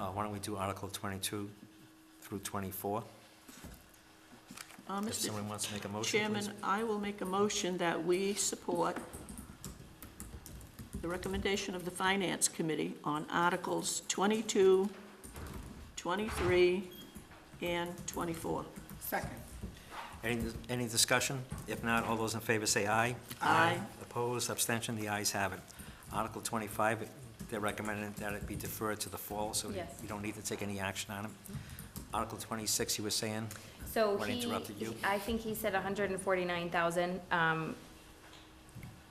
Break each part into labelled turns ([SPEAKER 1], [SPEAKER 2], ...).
[SPEAKER 1] Uh, why don't we do Article 22 through 24?
[SPEAKER 2] Uh,
[SPEAKER 1] If
[SPEAKER 2] Mr.
[SPEAKER 1] someone wants to make a motion,
[SPEAKER 2] Chairman,
[SPEAKER 1] please.
[SPEAKER 2] I will make a motion that we support the recommendation of the Finance Committee on Articles 22, 23, and 24.
[SPEAKER 3] Second.
[SPEAKER 1] Any, any discussion? If not, all those in favor say aye.
[SPEAKER 2] Aye.
[SPEAKER 1] Opposed, abstention, the ayes have it. Article 25, they're recommending that it be deferred to the fall, so
[SPEAKER 4] Yes.
[SPEAKER 1] you don't need to take any action on it. Article 26, you were saying?
[SPEAKER 4] So
[SPEAKER 1] What
[SPEAKER 4] he,
[SPEAKER 1] interrupted you?
[SPEAKER 4] I think he said hundred and forty-nine thousand, um,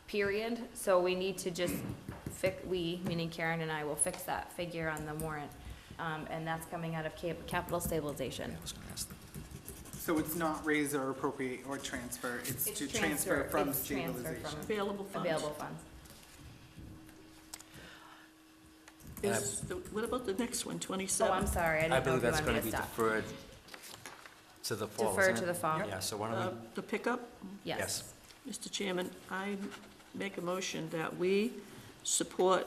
[SPEAKER 4] period, so we need to just fix, we, meaning Karen and I, will fix that figure on the warrant. Um, and that's coming out of cap- capital stabilization.
[SPEAKER 1] Yeah, I was gonna ask that.
[SPEAKER 3] So it's not raise or appropriate or transfer, it's
[SPEAKER 4] It's
[SPEAKER 3] to transfer
[SPEAKER 4] transfer,
[SPEAKER 3] from
[SPEAKER 4] it's transfer from-
[SPEAKER 3] stabilization.
[SPEAKER 2] Available funds.
[SPEAKER 4] Available funds.
[SPEAKER 2] Is the- What about the next one,
[SPEAKER 4] Oh,
[SPEAKER 2] 27?
[SPEAKER 4] I'm sorry, I
[SPEAKER 1] I
[SPEAKER 4] didn't know
[SPEAKER 1] believe
[SPEAKER 4] if you
[SPEAKER 1] that's
[SPEAKER 4] wanted
[SPEAKER 1] gonna
[SPEAKER 4] me
[SPEAKER 1] be
[SPEAKER 4] to stop.
[SPEAKER 1] deferred to the fall,
[SPEAKER 4] Defer
[SPEAKER 1] isn't
[SPEAKER 4] to
[SPEAKER 1] it?
[SPEAKER 4] the fall,
[SPEAKER 1] Yeah, so why
[SPEAKER 2] Uh,
[SPEAKER 1] don't
[SPEAKER 2] The pickup?
[SPEAKER 4] yes.
[SPEAKER 1] yes.
[SPEAKER 2] Mr. Chairman, I make a motion that we support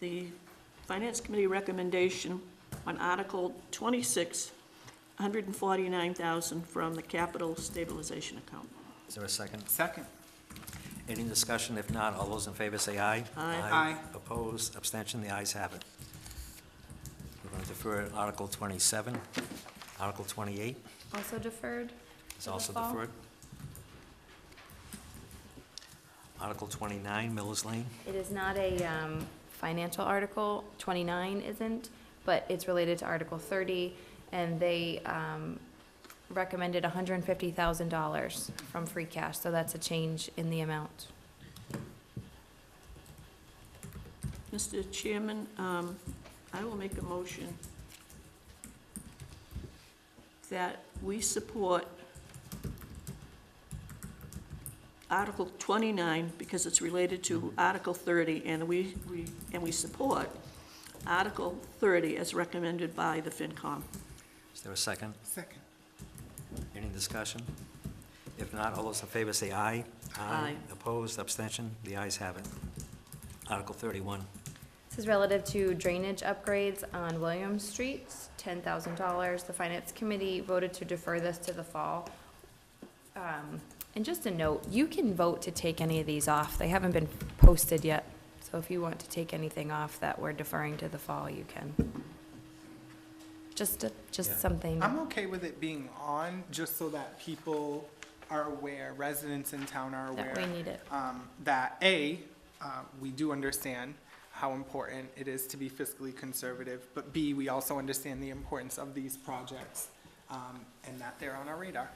[SPEAKER 2] the Finance Committee recommendation on Article 26, 149,000 from the Capital Stabilization Account.
[SPEAKER 1] we, is there a second?
[SPEAKER 3] Second.
[SPEAKER 1] Any discussion? If not, all those in favor say aye.
[SPEAKER 2] Aye.
[SPEAKER 3] Aye.
[SPEAKER 1] Opposed, abstention, the ayes have it. We're gonna defer Article 27. Article 28
[SPEAKER 4] Also deferred?
[SPEAKER 1] is
[SPEAKER 4] To the
[SPEAKER 1] also
[SPEAKER 4] fall.
[SPEAKER 1] deferred. Article 29, Miller's Lane.
[SPEAKER 4] It is not a um, financial article, 29 isn't, but it's related to Article 30, and they um, recommended $150,000 from free cash, so that's a change in the amount.
[SPEAKER 2] Mr. Chairman, um, I will make a motion that we support Article 29, because it's related to Article 30, and we, we and we support Article 30 as recommended by the FinCom.
[SPEAKER 1] Is there a second?
[SPEAKER 3] Second.
[SPEAKER 1] Any discussion? If not, all those in favor say aye.
[SPEAKER 2] Aye.
[SPEAKER 1] Opposed, abstention, the ayes have it. Article 31.
[SPEAKER 4] This is relative to drainage upgrades on William Street, $10,000. The Finance Committee voted to defer this to the fall. Um, And just a note, you can vote to take any of these off. They haven't been posted yet, so if you want to take anything off that we're deferring to the fall, you can. Just, a-
[SPEAKER 1] Yeah.
[SPEAKER 4] just something.
[SPEAKER 3] I'm okay with it being on, just so that people are aware, residents in town are aware.
[SPEAKER 4] That we need it.
[SPEAKER 3] um, That, A, uh, we do understand how important it is to be fiscally conservative, but B, we also understand the importance of these projects, um, and that they're on our radar.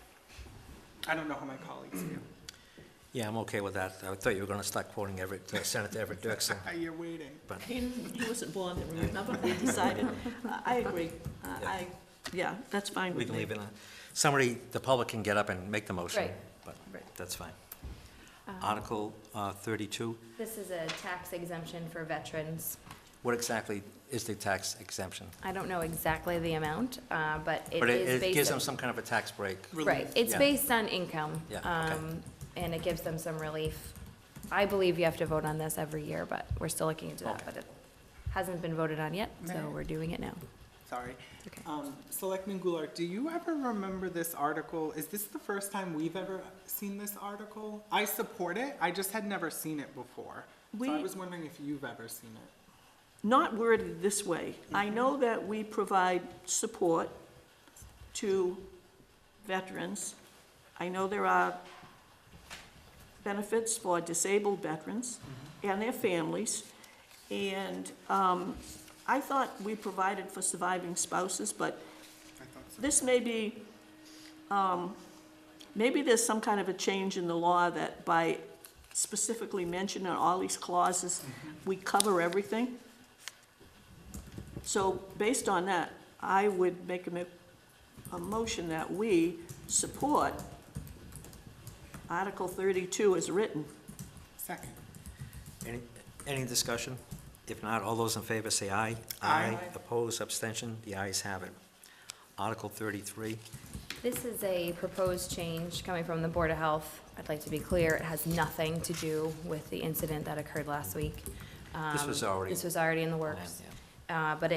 [SPEAKER 3] I don't know how my colleagues feel.
[SPEAKER 1] Yeah, I'm okay with that. I thought you were gonna start quoting Everett, uh, Senator Everett Dirksen.
[SPEAKER 3] Are you Uh, waiting?
[SPEAKER 1] but
[SPEAKER 2] He didn't- he wasn't born then, remember? We decided, I- I agree. I, I- yeah, that's fine
[SPEAKER 1] we
[SPEAKER 2] with
[SPEAKER 1] can
[SPEAKER 2] me.
[SPEAKER 1] leave it on. Somebody, the public can get up and make the motion.
[SPEAKER 4] Right.
[SPEAKER 1] But
[SPEAKER 4] Right. Um,
[SPEAKER 1] that's fine. Article uh, 32,
[SPEAKER 4] This is a tax exemption for veterans.
[SPEAKER 1] what exactly is the tax exemption?
[SPEAKER 4] I don't know exactly the amount, uh, but it
[SPEAKER 1] But
[SPEAKER 4] is
[SPEAKER 1] it-
[SPEAKER 4] based.
[SPEAKER 1] it gives
[SPEAKER 4] on-
[SPEAKER 1] them some kind of a tax break.
[SPEAKER 4] Right, it's
[SPEAKER 1] Yeah.
[SPEAKER 4] based on income.
[SPEAKER 1] Yeah, okay.
[SPEAKER 4] um, And it gives them some relief. I believe you have to vote on this every year, but we're still looking into that,
[SPEAKER 1] Okay.
[SPEAKER 4] but it hasn't been voted on yet, so
[SPEAKER 3] Mayor?
[SPEAKER 4] we're doing it now.
[SPEAKER 3] Sorry.
[SPEAKER 4] Okay.
[SPEAKER 3] Um, Selectman Goulart, do you ever remember this article? Is this the first time we've ever seen this article? I support it, I just had never seen it before. So I
[SPEAKER 2] We-
[SPEAKER 3] was wondering if you've ever seen it.
[SPEAKER 2] not worded this way. I
[SPEAKER 3] Mm-hmm.
[SPEAKER 2] know that we provide support to veterans. I know there are benefits for disabled veterans
[SPEAKER 3] Mm-hmm.
[SPEAKER 2] and their families. And um, I thought we provided for surviving spouses, but
[SPEAKER 3] I thought so.
[SPEAKER 2] this may be, um, maybe there's some kind of a change in the law that by specifically mentioning all these clauses,
[SPEAKER 3] Mm-hmm.
[SPEAKER 2] we cover everything. So based on that, I would make a, mo- a motion that we support Article 32 as written.
[SPEAKER 3] Second.
[SPEAKER 1] Any, any discussion? If not, all those in favor say aye.
[SPEAKER 3] Aye.
[SPEAKER 1] Opposed, abstention, the ayes have it. Article 33,
[SPEAKER 4] This is a proposed change coming from the Board of Health. I'd like to be clear, it has nothing to do with the incident that occurred last week.
[SPEAKER 1] This was
[SPEAKER 4] Um,
[SPEAKER 1] already
[SPEAKER 4] This was already in the works.
[SPEAKER 1] planned, yeah.
[SPEAKER 4] Uh, But